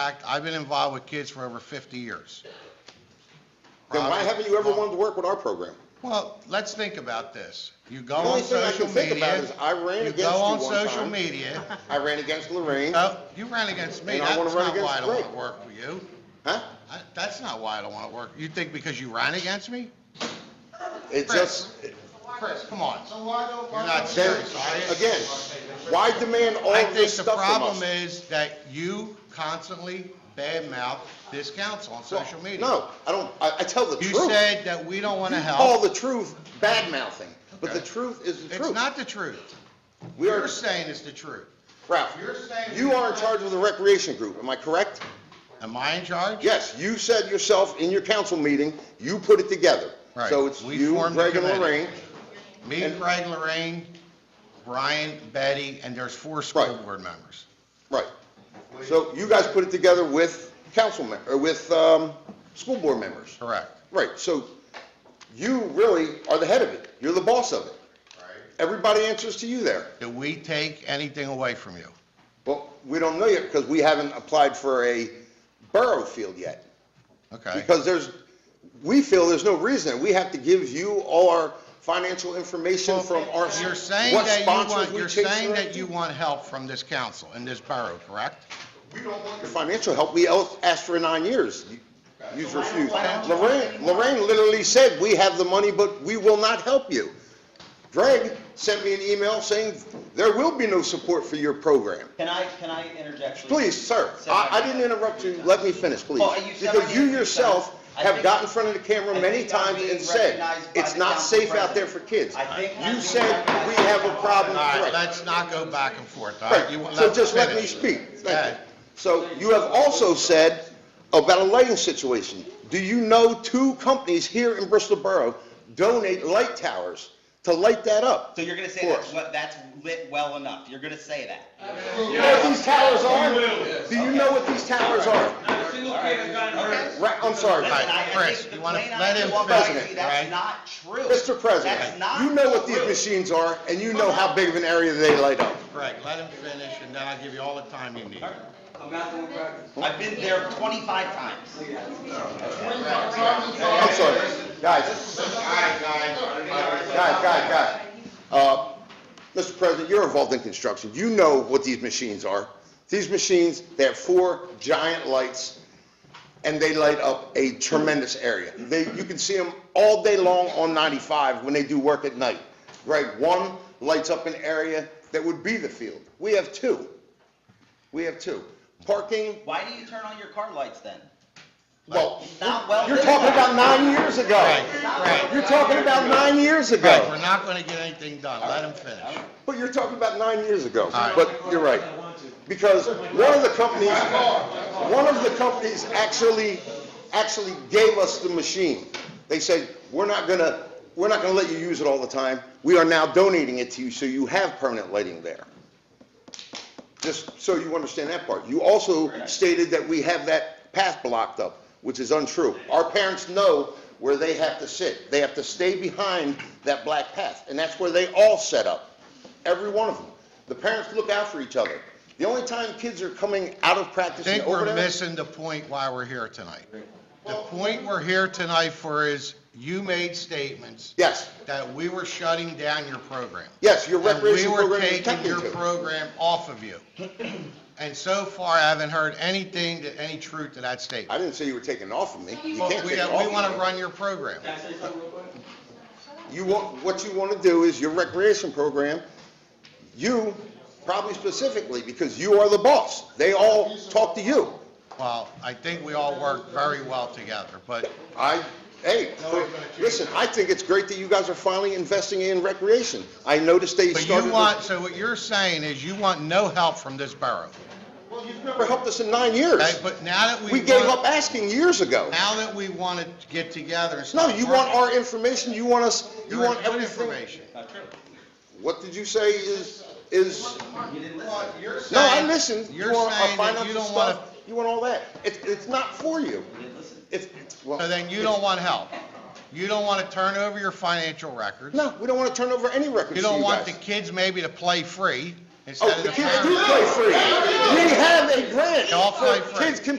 fact, I've been involved with kids for over 50 years. Then why haven't you ever wanted to work with our program? Well, let's think about this. You go The only on thing I social can think about media. is I ran against you go one on social time. media. I ran against Lorraine, huh? No, you ran against me. And I That's wanna not run why I against don't want Rick. to work for you. I- That's not why I don't want to work. You think because you ran against me? It just, Chris, come on. You're not then, serious, are you? again, why demand all I this think the stuff from us? problem is that you constantly badmouth this council on social media. No, I don't, I, I tell the You truth. said that we don't want to You Call help. the truth bad mouthing, but the Okay. truth is the It's truth. not the truth. We are, You're saying it's the truth. Ralph, you're saying- you are in charge of the recreation group, am I correct? Am I in charge? Yes, you said yourself in your council meeting, you put it together. Right. So it's We you, formed the Greg and committee. Lorraine. Me, And- Greg, Lorraine, Brian, Betty, and there's four school Right. board members. Right. So you guys put it together with council, mem- or with, um, school board members. Correct. Right, so you really are the head of it. You're the boss of it. Everybody answers to you there. Did we take anything away from you? Well, we don't know yet because we haven't applied for a borough field yet. Okay. Because there's, we feel there's no reason. We have to give you all our financial information from our, what You're saying that you sponsors want, we you're chase. saying and that you everything. want help from this council and this borough, correct? We don't want your financial help. We el- asked for nine years. You- You've refused. Lorraine, Lorraine literally said, "We have the money, but we will not help you." Greg sent me an email saying, "There will be no support for your program." Can I, can I interject? Please, sir, I, I didn't interrupt you, let me finish, please. Well, you said Because my you name, you yourself said- I have think- got in front of the camera I many think I'm times being and said, recognized by it's the not council safe out there for kids. I think I'm You being said, we recognized by have the a council. problem, All right, right? let's not go back and forth, all right? You Right, want- so just let me finish. speak, thank Okay. you. So you have also said about a lighting situation. Do you know two companies here in Bristol Borough donate light towers to light that up? So you're gonna say For that's, us. what- that's lit well enough, you're gonna say that? Do you know what these towers are? Do you know what these towers are? Not a single kid has gotten hurt. Right, I'm sorry. Listen, I- I think Chris, the you wanna plain let eyes him walk by and finish, see right? That's not true. Mr. That's President, not you know what these true. machines are, and you know how big of an area they light up. Greg, let him finish, and then I'll give you all the time you need. I'm not doing practice. I've been there twenty-five times. I'm sorry, guys, guys, guys, guys. Uh, Mr. President, you're involved in construction, you know what these machines are. These machines, they have four giant lights, and they light up a tremendous area. They, you can see them all day long on 95 when they do work at night. Greg, one lights up an area that would be the field. We have two. We have two. Parking, Why do you turn on your car lights then? Well, Not well you're lit. talking about nine years ago. Right, right. You're talking about nine years Greg, we're ago. not gonna get anything done, let him finish. But you're talking about nine years ago. right. But you're right. Because one of the companies, one of the companies actually, actually gave us the machine. They said, we're not gonna, we're not gonna let you use it all the time. We are now donating it to you, so you have permanent lighting there. Just so you understand that part. You also stated that we have that path blocked up, which is untrue. Our parents know where they have to sit. They have to stay behind that black path, and that's where they all set up, every one of them. The parents look out for each other. The only time kids are coming out of I practice and think over we're there. missing the point why we're here tonight. The point we're here tonight for is, you made statements Yes, that we were shutting down your program. yes, your And we recreation were program is taking attempting your to. program off of you. And so far, I haven't heard anything, to any truth to that I statement. didn't say you were taking it off of me. You But can't we, take it we off of want me. to run your program. Can I say something real quick? You want, what you want to do is your recreation program, you, probably specifically, because you are the boss. They all talk to you. Well, I think we all work very well together, but I, hey, No, we're gonna change listen, I think it's great that you guys are finally investing in recreation. I noticed they But started, you want, this- so what you're saying is you want no help from this borough, you've never helped us in nine years. okay? But now that we. We gave want- up asking years ago. Now that we want to get together and No, start. you want working, our information, you want us, you your want everything. information. Not true. What did you say is, is You didn't listen. Well, you're No, I saying- listened. You're You want our saying that you financial don't want stuff, You want all that. It's, it's not for you. You didn't listen. It's, well. to, so then you don't want help. You don't want to turn over your financial records. No, we don't want to turn over any records to You you don't want the guys. kids maybe to play free. instead Oh, of the the kids parents. do play free. We have a grant. They all play free. Kids can